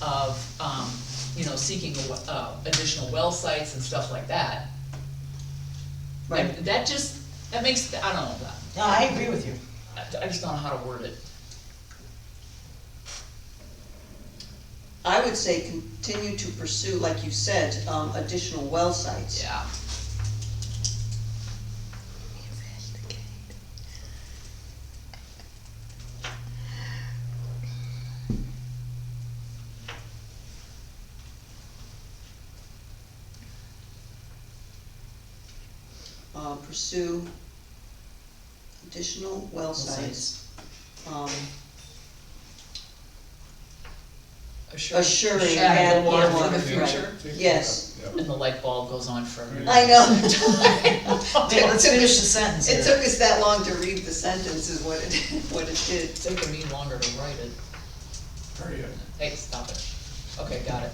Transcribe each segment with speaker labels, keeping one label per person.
Speaker 1: of, um, you know, seeking, a we- uh, additional well sites and stuff like that.
Speaker 2: Right,
Speaker 1: That- That just, that makes, I don't know,
Speaker 2: no, I agree with you.
Speaker 1: I, I just don't know how to word it.
Speaker 3: I would say continue to pursue, like you said, um, additional well sites.
Speaker 1: Yeah,
Speaker 3: Uh, pursue additional well sites. Um,
Speaker 1: assuring.
Speaker 3: Assuring
Speaker 1: the
Speaker 3: and-
Speaker 1: water
Speaker 3: yeah,
Speaker 1: for the
Speaker 3: right.
Speaker 1: future,
Speaker 3: Yes.
Speaker 1: and the light bulb goes on for.
Speaker 3: I know,
Speaker 2: Okay, let's finish the sentence
Speaker 3: it
Speaker 2: here.
Speaker 3: took us that long to read the sentence is what it, what it did.
Speaker 1: It's taking me longer to write it.
Speaker 4: Very good.
Speaker 1: Hey, stop it. Okay, got it.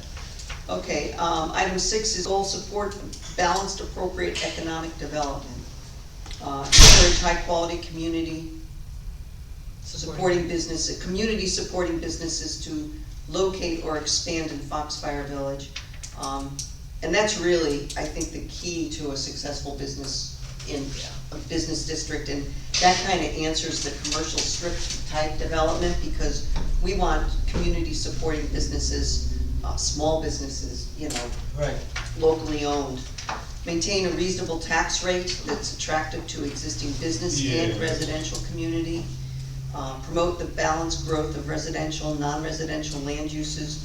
Speaker 3: Okay, um, item six is goal support balanced appropriate economic development. Uh, encourage high-quality community supporting business, community supporting businesses to locate or expand in Foxfire Village. Um, and that's really, I think, the key to a successful business in a business district, and that kinda answers the commercial strip type development, because we want community supporting businesses, uh, small businesses, you know,
Speaker 2: Right,
Speaker 3: locally owned. Maintain a reasonable tax rate that's attractive to existing business and
Speaker 4: Yeah.
Speaker 3: residential community. Uh, Promote the balanced growth of residential, non-residential land uses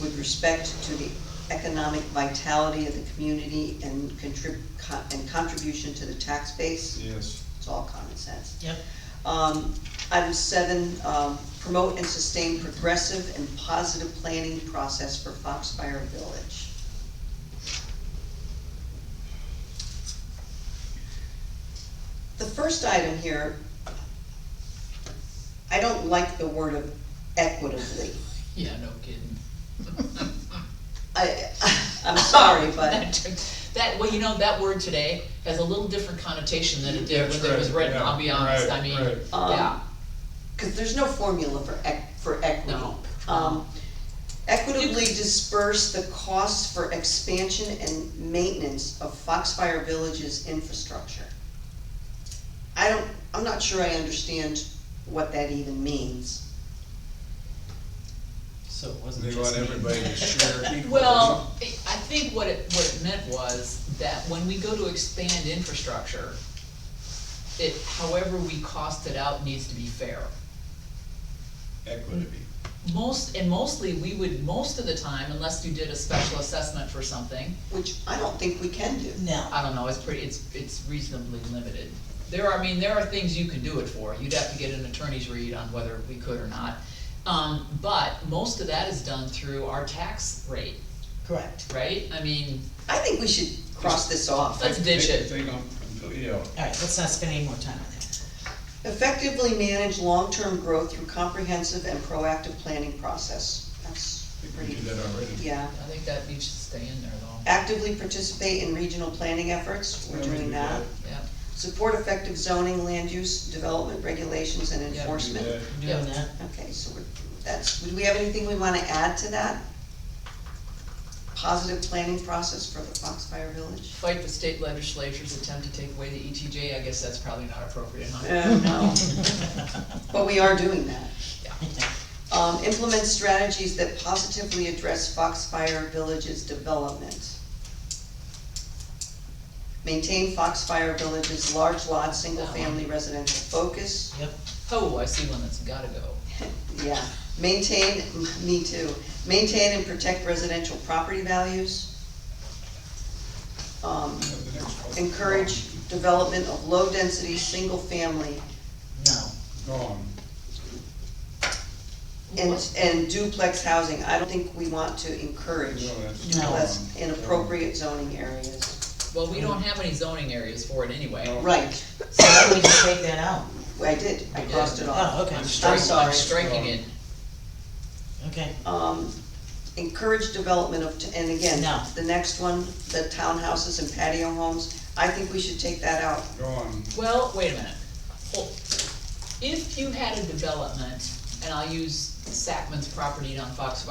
Speaker 3: with respect to the economic vitality of the community and contrib, con- and contribution to the tax base.
Speaker 4: Yes.
Speaker 3: It's all common sense.
Speaker 2: yep,
Speaker 3: Um, item seven, um, promote and sustain progressive and positive planning process for Foxfire Village. The first item here, I don't like the word of equitably.
Speaker 1: Yeah, no kidding.
Speaker 3: I, I'm sorry, but,
Speaker 1: That, well, you know, that word today has a little different connotation than it did when it was
Speaker 4: That's right,
Speaker 1: written,
Speaker 4: yeah,
Speaker 1: I'll be honest,
Speaker 4: right,
Speaker 1: I mean,
Speaker 4: right.
Speaker 3: Um,
Speaker 1: yeah.
Speaker 3: cause there's no formula for ec, for equity.
Speaker 1: No.
Speaker 3: Um, Equitably disperse the costs for expansion and maintenance of Foxfire Village's infrastructure. I don't, I'm not sure I understand what that even means.
Speaker 2: so it wasn't
Speaker 4: They
Speaker 2: just
Speaker 4: want
Speaker 2: me.
Speaker 4: everybody to share equally.
Speaker 1: Well, I I think what it, what it meant was that when we go to expand infrastructure, it, however we cost it out needs to be fair.
Speaker 4: Equity.
Speaker 1: Most, and mostly, we would, most of the time, unless you did a special assessment for something,
Speaker 3: Which I don't think we can do.
Speaker 2: No,
Speaker 1: I don't know, it's pretty, it's, it's reasonably limited. There are, I mean, there are things you can do it for, you'd have to get an attorney's read on whether we could or not. Um, but most of that is done through our tax rate,
Speaker 2: correct,
Speaker 1: right? I mean,
Speaker 3: I think we should cross this off.
Speaker 1: let's ditch it.
Speaker 4: They don't, you know,
Speaker 2: alright, let's not spend any more time on that.
Speaker 3: Effectively manage long-term growth through comprehensive and proactive planning process. That's
Speaker 4: I think we
Speaker 3: pretty,
Speaker 4: did that already.
Speaker 3: yeah.
Speaker 1: I think that needs to stay in there though,
Speaker 3: Actively participate in regional planning efforts, we're
Speaker 4: Yeah, we
Speaker 3: doing
Speaker 4: do
Speaker 3: that.
Speaker 1: yeah.
Speaker 3: Support effective zoning, land use, development regulations and
Speaker 1: Yeah.
Speaker 4: We did
Speaker 3: enforcement.
Speaker 4: that.
Speaker 2: We're
Speaker 1: Yeah.
Speaker 2: Doing that,
Speaker 3: Okay, so we're, that's, do we have anything we wanna add to that? Positive planning process for the Foxfire Village?
Speaker 1: Fight the state legislature's attempt to take away the ETJ, I guess that's probably not appropriate, huh?
Speaker 3: Uh, no. But we are doing that.
Speaker 1: Yeah.
Speaker 3: Um, implement strategies that positively address Foxfire Village's development. Maintain Foxfire Village's large lot, single-family residential focus.
Speaker 2: yep,
Speaker 1: Oh, I see one that's gotta go.
Speaker 3: Yeah, maintain, me too, maintain and protect residential property values. Um,
Speaker 4: Yeah, the next one.
Speaker 3: encourage development of low-density, single-family,
Speaker 2: no,
Speaker 4: Gone.
Speaker 3: and, and duplex housing, I don't think we want to encourage.
Speaker 4: No, that's
Speaker 2: No.
Speaker 3: That's
Speaker 4: gone.
Speaker 3: in appropriate zoning areas.
Speaker 1: Well, we don't have any zoning areas for it anyway.
Speaker 3: Right,
Speaker 2: so why don't we just take that out?
Speaker 3: I did, I crossed it off.
Speaker 2: Oh, okay,
Speaker 1: I'm striking, I'm
Speaker 3: sorry.
Speaker 1: striking it.
Speaker 2: okay,
Speaker 3: Um, encourage development of, t- and again,
Speaker 2: No.
Speaker 3: the next one, the townhouses and patio homes, I think we should take that out.
Speaker 4: Gone.
Speaker 1: Well, wait a minute. Hold. If you had a development, and I'll use Sackman's property on Fox